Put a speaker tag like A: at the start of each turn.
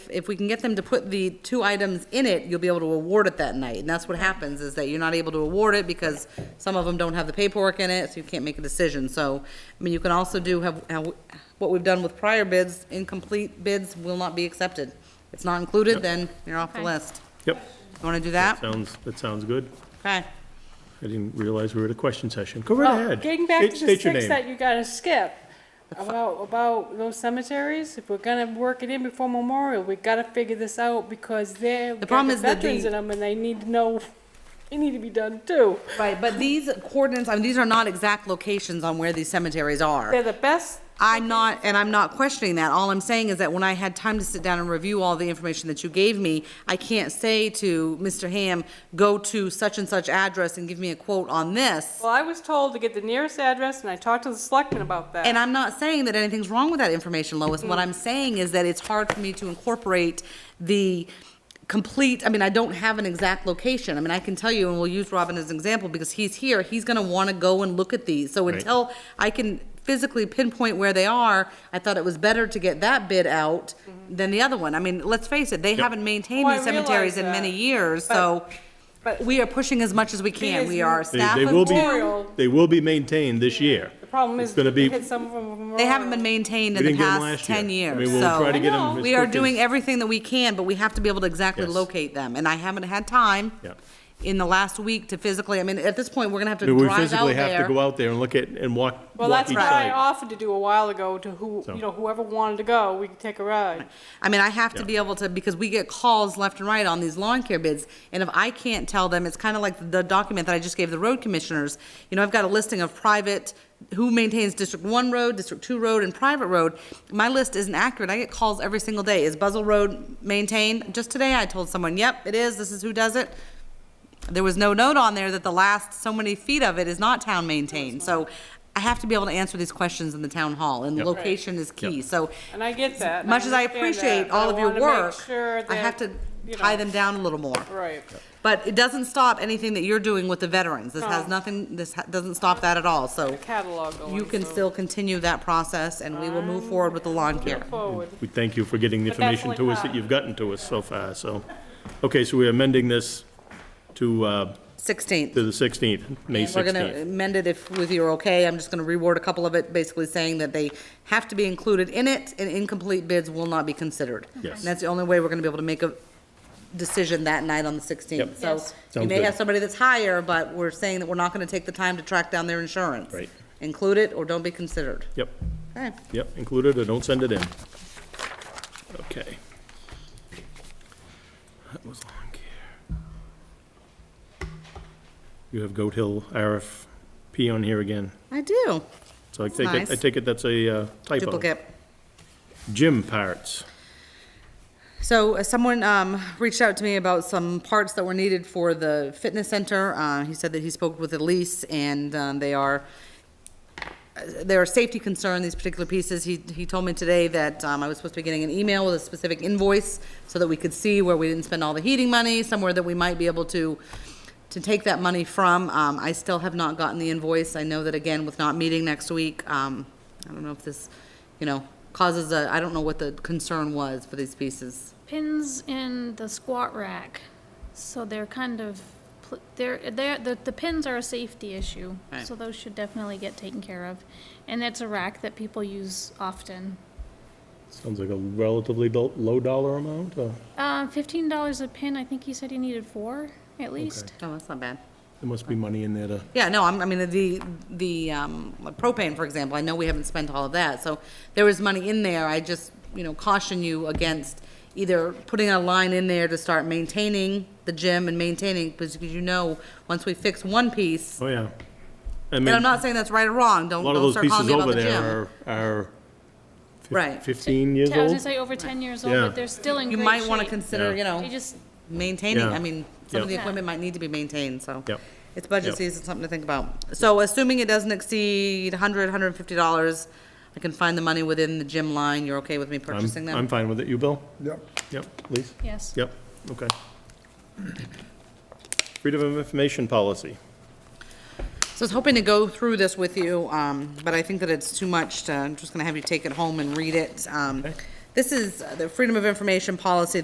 A: if we can get them to put the two items in it, you'll be able to award it that night. And that's what happens, is that you're not able to award it because some of them don't have the paperwork in it, so you can't make a decision. So, I mean, you can also do have, how- what we've done with prior bids, incomplete bids will not be accepted. If it's not included, then you're off the
B: Okay.
A: list.
C: Yep,
A: You wanna do that?
C: sounds, that sounds good.
A: Okay.
C: I didn't realize we were at a question session. Go right
B: Well,
C: ahead.
B: Getting back
C: State-
B: to the
C: state your
B: six
C: name.
B: that you gotta skip, about, about those cemeteries, if we're gonna work it in before Memorial, we gotta figure this out because they're,
A: The problem
B: got the
A: is that the-
B: veterans in them and they need to know, they need to be done too.
A: Right, but these coordinates, I mean, these are not exact locations on where these cemeteries are.
B: They're the best,
A: I'm not, and I'm not questioning that. All I'm saying is that when I had time to sit down and review all the information that you gave me, I can't say to Mr. Ham, go to such and such address and give me a quote on this.
B: well, I was told to get the nearest address and I talked to the selectman about that.
A: And I'm not saying that anything's wrong with that information, Lois.
C: Mm-hmm.
A: What I'm saying is that it's hard for me to incorporate the complete, I mean, I don't have an exact location. I mean, I can tell you, and we'll use Robin as an example, because he's here, he's gonna wanna go and look at these. So
C: Right.
A: until I can physically pinpoint where they are, I thought it was better to get that bid out
C: Mm-hmm.
A: than the other one. I mean, let's face it, they haven't maintained
B: Oh, I
A: these cemeteries in
B: realize that.
A: many years,
B: But-
A: so
B: but-
A: we are pushing as much as we can.
B: is
A: We are
B: m-
C: They-
A: staff
C: They
A: of
C: will be,
B: Memorial.
C: they will be maintained this year.
B: The problem
C: It's
B: is,
C: gonna
B: we
C: be-
B: hit some from Memorial.
A: They haven't been maintained in the
C: We didn't get 'em
A: past
C: last year.
A: ten
C: I
A: years,
C: mean, we'll
A: so.
C: try to get 'em
B: I know.
C: as
A: We are
C: quick as-
A: doing everything that we can, but we have to be able to exactly
C: Yes.
A: locate them, and I haven't had time
C: Yeah.
A: in the last week to physically, I mean, at this point, we're gonna have to
C: I mean, We
A: drive out
C: physically have to go
A: there.
C: out there and look at, and walk,
B: Well,
C: walk
B: that's
C: each
B: what I
C: site.
B: offered to do a while ago to who,
C: So-
B: you know, whoever wanted to go, we could take a ride.
A: I mean, I have to
C: Yeah.
A: be able to, because we get calls left and right on these lawn care bids, and if I can't tell them, it's kinda like the document that I just gave the road commissioners. You know, I've got a listing of private, who maintains District One Road, District Two Road, and private road. My list isn't accurate, I get calls every single day, is Buzzell Road maintained? Just today, I told someone, yep, it is, this is who does it. there was no note on there that the last so many feet of it is not town maintained. So I have to be able to answer these questions in the town hall, and
C: Yep.
A: location is key.
C: Yep.
A: So
B: And I get that. and
A: much as I
B: understand that,
A: appreciate
B: but I
A: all of your
B: wanna make
A: work,
B: sure
A: I have to
B: that, you
A: tie
B: know,
A: them down a little more.
B: Right.
A: But it doesn't stop anything that you're doing with the veterans. This has
B: No.
A: nothing, this ha- doesn't stop that at all. So
B: Catalog going.
A: you can
B: so
A: still continue that process, and we will move forward with the lawn care.
B: Forward.
C: We thank you for getting the
B: But that's
C: information
B: like
C: to us that
B: that.
C: you've gotten to us so far, so. Okay, so we're amending this to, uh,
A: 16th.
C: to the 16th, May
A: And We're gonna
C: 16th.
A: amend it if, with your okay, I'm just gonna reword a couple of it, basically saying that they have to be included in it, and incomplete bids will not be considered.
C: Yes.
A: And that's the only way we're gonna be able to make a decision that night on the sixteenth.
C: Yep.
A: So
B: Yes.
A: you
C: Sounds
A: may
C: good.
A: have somebody that's higher, but we're saying that we're not gonna take the time to track down their insurance.
C: Right.
A: Include it or don't be considered.
C: Yep,
A: Okay.
C: yep, include it or don't send it in. Okay. That was lawn care. You have Goat Hill RFP on here again,
A: I do,
C: so I take it, I
A: nice.
C: take it that's a uh, typo.
A: duplicate.
C: Gym parts.
A: So uh, someone um, reached out to me about some parts that were needed for the fitness center. Uh, He said that he spoke with Elise, and um, they are, uh, there are safety concern, these particular pieces. He, he told me today that um, I was supposed to be getting an email with a specific invoice so that we could see where we didn't spend all the heating money, somewhere that we might be able to, to take that money from. Um, I still have not gotten the invoice. I know that again, with not meeting next week, um, I don't know if this, you know, causes a, I don't know what the concern was for these pieces.
D: pins in the squat rack, so they're kind of, pl- they're, they're, the, the pins are a safety issue,
A: Right.
D: so those should definitely get taken care of. And it's a rack that people use often.
C: Sounds like a relatively low low dollar amount, or
D: Um, fifteen dollars a pin, I think he said he needed four, at least.
A: Oh, that's not bad.
C: there must be money in there to,
A: Yeah, no, I'm, I mean, the, the, um, propane, for example, I know we haven't spent all of that, so there is money in there, I just, you know, caution you against either putting a line in there to start maintaining the gym and maintaining, because you know, once we fix one piece,
C: oh, yeah. I
A: and I'm
C: mean, a
A: not saying that's right or wrong, don't,
C: lot of
A: don't
C: those
A: start calling
C: pieces
A: me about
C: over
A: the gym.
C: there are, are fif-
A: Right.
C: fifteen years
D: I was gonna
C: old.
D: say over ten years old,
C: Yeah.
D: but they're still in
A: You
D: great
A: might wanna
D: shape.
A: consider,
C: Yeah.
A: you know,
D: They just,
A: maintaining,
C: Yeah.
A: I mean, some of the
C: Yeah.
A: equipment might need to be maintained, so.
C: Yep.
A: It's budget
C: Yep.
A: season, something to think about. So assuming it doesn't exceed hundred, hundred and fifty dollars, I can find the money within the gym line, you're okay with me
C: I'm,
A: purchasing
C: I'm
A: them?
C: fine with it. You, Bill?
E: Yep.
C: Yep, Lise?
D: yes.
C: Yep, okay. Freedom of information policy.
A: So I was hoping to go through this with you, um, but I think that it's too much to, I'm just gonna have you take it home and read it. Um, This is uh, the Freedom of Information policy